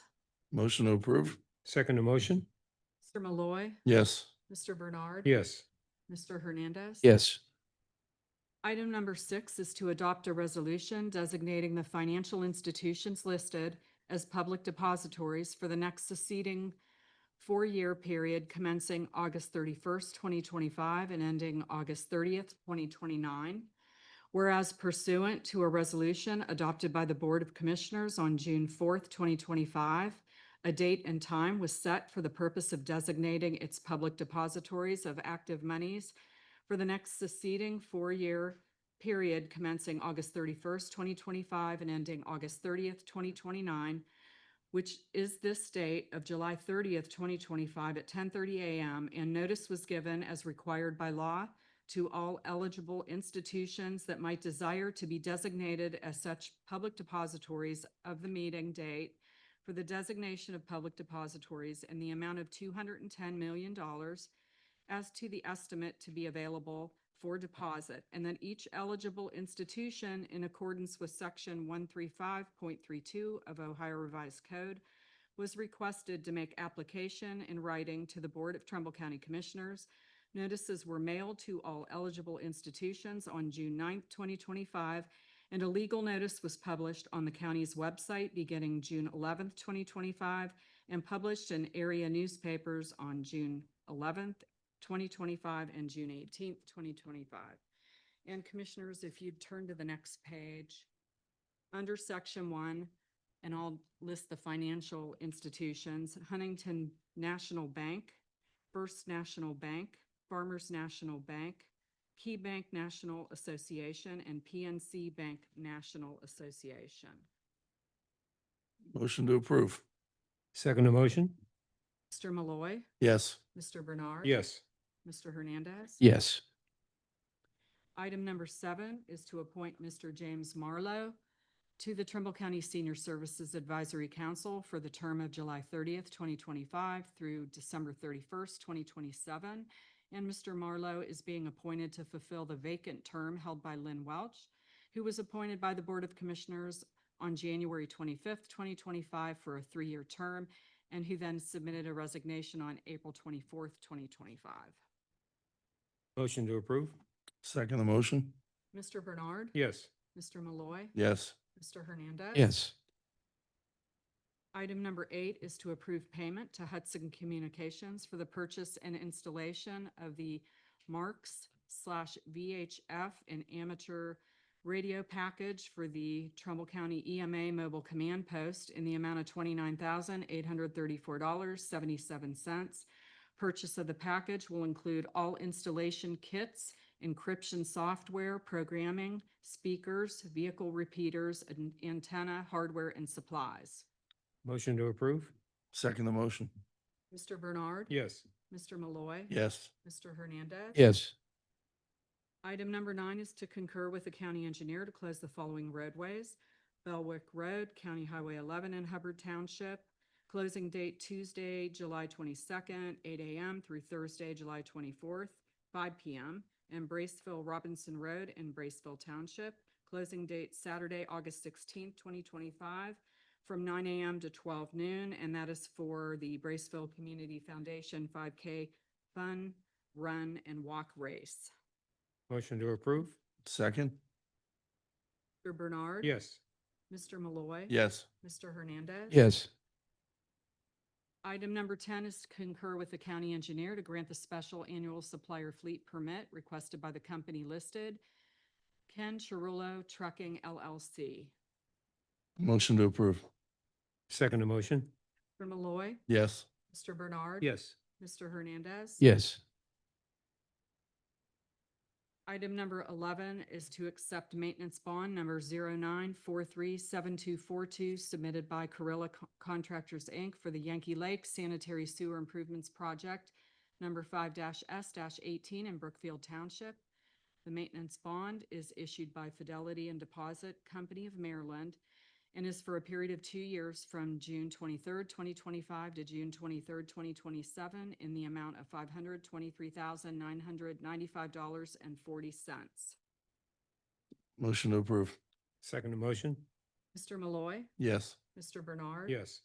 Motion to approve? Second to motion? Mr. Malloy, Yes. Mr. Bernard. Yes. Mr. Hernandez. yes, Item number six is to adopt a resolution designating the financial institutions listed as public depositories for the next succeeding four-year period commencing August thirty-first, twenty twenty-five and ending August thirtieth, twenty twenty-nine. Whereas pursuant to a resolution adopted by the Board of Commissioners on June fourth, twenty twenty-five, a date and time was set for the purpose of designating its public depositories of active monies for the next succeeding four-year period commencing August thirty-first, twenty twenty-five and ending August thirtieth, twenty twenty-nine, which is this date of July thirtieth, twenty twenty-five at ten thirty a.m. And notice was given as required by law to all eligible institutions that might desire to be designated as such public depositories of the meeting date for the designation of public depositories and the amount of two hundred and ten million dollars as to the estimate to be available for deposit, and that each eligible institution, in accordance with Section 135.32 of Ohio Revised Code, was requested to make application in writing to the Board of Trumbull County Commissioners. Notices were mailed to all eligible institutions on June 9th, 2025, and a legal notice was published on the county's website beginning June 11th, 2025, and published in area newspapers on June 11th 2025 and June 18th, 2025. And Commissioners, if you'd turn to the next page, under Section 1, and I'll list the financial institutions, Huntington National Bank, First National Bank, Farmers National Bank, Key Bank National Association, and PNC Bank National Association. Motion to approve? Second to motion? Mr. Malloy, Yes. Mr. Bernard. Yes. Mr. Hernandez. yes, Item number seven is to appoint Mr. James Marlowe to the Trimble County Senior Services Advisory Council for the term of July thirtieth, twenty twenty-five through December thirty-first, twenty twenty-seven. And Mr. Marlowe is being appointed to fulfill the vacant term held by Lynn Welch, who was appointed by the Board of Commissioners on January twenty-fifth, twenty twenty-five for a three-year term, and who then submitted a resignation on April twenty-fourth, twenty twenty-five. Motion to approve? Second the motion? Mr. Bernard. Yes. Mr. Malloy. Yes. Mr. Hernandez. yes, Item number eight is to approve payment to Hudson Communications for the purchase and installation of the Marks slash VHF and amateur radio package for the Trumbull County EMA Mobile Command Post in the amount of twenty-nine thousand, eight hundred thirty-four dollars, seventy-seven cents. Purchase of the package will include all installation kits, encryption software, programming, speakers, vehicle repeaters, an- antenna, hardware, and supplies. Motion to approve? Second the motion? Mr. Bernard. Yes. Mr. Malloy. Yes. Mr. Hernandez. yes, Item number nine is to concur with the county engineer to close the following roadways. Belwick Road, County Highway 11 in Hubbard Township. Closing date Tuesday, July 22nd, 8 a.m. through Thursday, July 24th, 5 p.m. And Braceville Robinson Road in Braceville Township. Closing date Saturday, August 16th, 2025, from 9 a.m. to 12 noon. And that is for the Braceville Community Foundation 5K Fun Run and Walk Race. Motion to approve? Second? Mr. Bernard. Yes. Mr. Malloy. Yes. Mr. Hernandez. yes, Item number 10 is to concur with the county engineer to grant the special annual supplier fleet permit requested by the company listed, Ken Chirullo Trucking LLC. Motion to approve? Second to motion? Mr. Malloy. Yes. Mr. Bernard. Yes. Mr. Hernandez. yes, Item number 11 is to accept maintenance bond number 09437242 submitted by Carrilla Co- Contractors, Inc. for the Yankee Lake Sanitary Sewer Improvements Project, number 5-S-18 in Brookfield Township. The maintenance bond is issued by Fidelity and Deposit Company of Maryland and is for a period of two years from June 23rd, 2025 to June 23rd, 2027 in the amount of $523,995.40. Motion to approve? Second to motion? Mr. Malloy, Yes. Mr. Bernard. Yes.